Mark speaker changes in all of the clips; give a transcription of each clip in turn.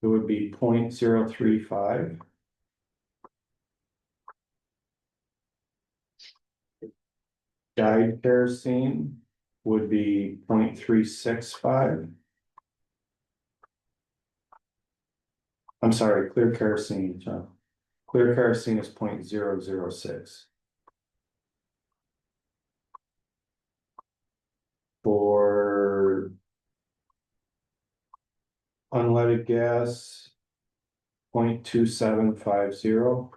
Speaker 1: It would be point zero three five. Dyed kerosene would be point three six five. I'm sorry, clear kerosene, John. Clear kerosene is point zero zero six. For unleaded gas, point two seven five zero.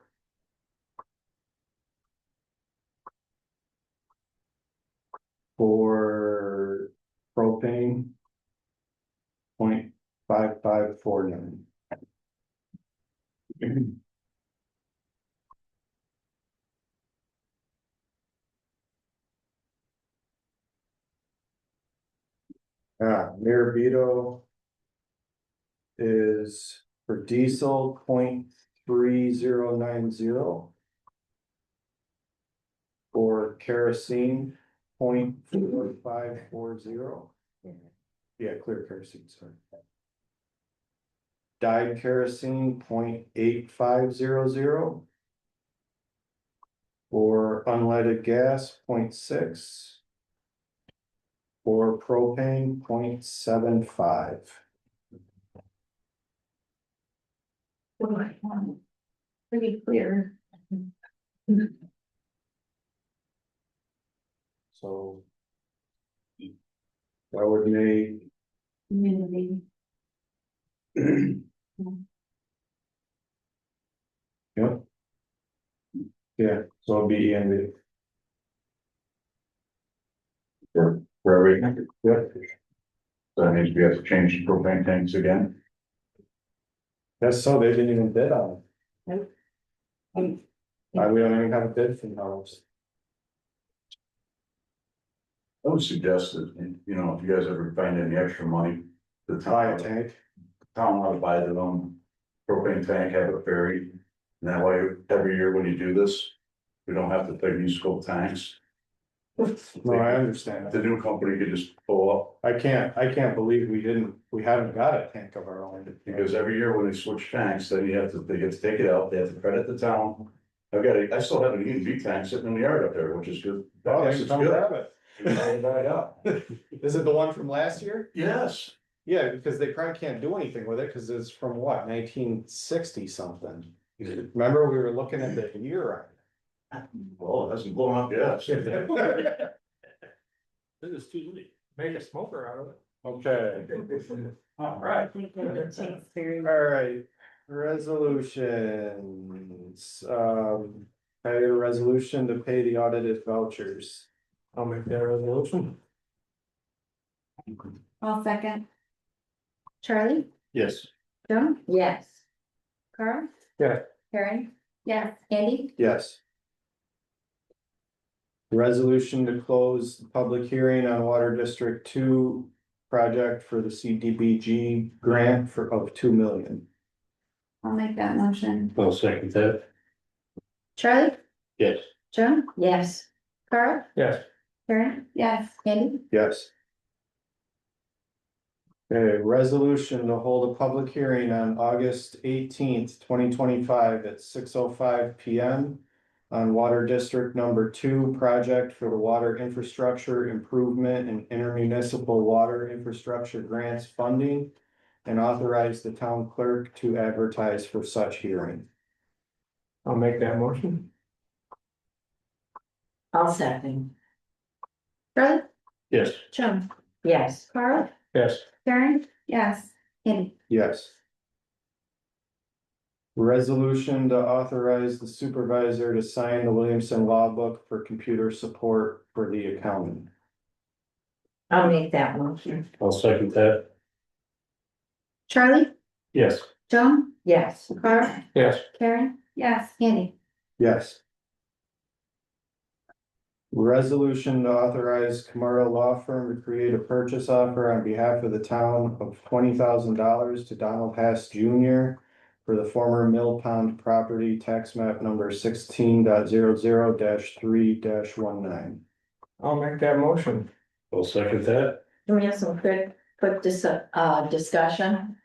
Speaker 1: For propane, point five five four nine. Ah, Mirabito is for diesel point three zero nine zero. For kerosene point four five four zero. Yeah, clear kerosene, sorry. Dyed kerosene point eight five zero zero. For unleaded gas point six. For propane point seven five.
Speaker 2: Pretty clear.
Speaker 1: So. That would make.
Speaker 2: Community.
Speaker 1: Yep. Yeah, so E, it'd be in the.
Speaker 3: For, for every,
Speaker 1: Yep,
Speaker 3: so that means we have to change the propane tanks again.
Speaker 1: that's so, they didn't even bid on it.
Speaker 2: Nope. Um,
Speaker 1: Uh, we don't even have a bid for those.
Speaker 3: I would suggest that, you know, if you guys ever find any extra money, the
Speaker 1: Buy a
Speaker 3: town,
Speaker 1: tank,
Speaker 3: town ought to buy their own propane tank, have it buried. And that way, every year when you do this, we don't have to pay municipal tanks.
Speaker 1: no, I understand,
Speaker 3: The new company could just pull up,
Speaker 1: I can't, I can't believe we didn't, we haven't got a tank of our own.
Speaker 3: because every year when they switch tanks, then you have to, they get to take it out, they have to credit the town. I've got, a- I still have an E and V tank sitting in the yard up there, which is good.
Speaker 1: Oh,
Speaker 3: Yes,
Speaker 1: you
Speaker 3: it's
Speaker 1: come
Speaker 3: good.
Speaker 1: grab it,
Speaker 3: It's dried up.
Speaker 1: is it the one from last year?
Speaker 3: Yes,
Speaker 1: Yeah, because they probably can't do anything with it, cause it's from what, nineteen sixty something? Remember, we were looking at the year on it.
Speaker 3: well, it hasn't blown up yet.
Speaker 4: This is too late. Make a smoker out of it.
Speaker 1: Okay,
Speaker 3: All
Speaker 2: I
Speaker 3: right.
Speaker 2: think that it takes very.
Speaker 1: alright, resolutions, um, I have a resolution to pay the audited vouchers.
Speaker 4: I'll make that resolution.
Speaker 2: I'll second. Charlie?
Speaker 3: Yes.
Speaker 2: Joan? Yes. Carl?
Speaker 1: Yeah.
Speaker 2: Karen? Yes. Andy?
Speaker 1: Yes. Resolution to close the public hearing on Water District Two project for the CDBG grant for of two million.
Speaker 2: I'll make that motion.
Speaker 4: I'll second that.
Speaker 2: Charlie?
Speaker 4: Yes.
Speaker 2: Joan? Yes. Carl?
Speaker 4: Yes.
Speaker 2: Karen? Yes. Andy?
Speaker 1: Yes. Okay, resolution to hold a public hearing on August eighteenth, twenty twenty-five at six oh five P M. On Water District Number Two project for the Water Infrastructure Improvement and Intermunicipal Water Infrastructure Grants Funding. And authorize the town clerk to advertise for such hearing.
Speaker 4: I'll make that motion.
Speaker 5: I'll second,
Speaker 2: Charlie?
Speaker 4: Yes.
Speaker 2: Joan?
Speaker 5: yes,
Speaker 2: Carl?
Speaker 4: Yes.
Speaker 2: Karen? Yes. Andy?
Speaker 1: Yes. Resolution to authorize the supervisor to sign the Williamson Law Book for computer support for the accountant.
Speaker 5: I'll make that motion,
Speaker 4: I'll second that.
Speaker 2: Charlie?
Speaker 4: Yes.
Speaker 2: Joan?
Speaker 5: yes,
Speaker 2: Carl?
Speaker 4: Yes.
Speaker 2: Karen? Yes. Andy?
Speaker 1: Yes. Resolution to authorize Camaro Law Firm to create a purchase offer on behalf of the town of twenty thousand dollars to Donald Hess Junior. For the former Mill Pond property tax map number sixteen dot zero zero dash three dash one nine.
Speaker 4: I'll make that motion. I'll second that.
Speaker 5: can we have some quick, quick dis- uh, discussion?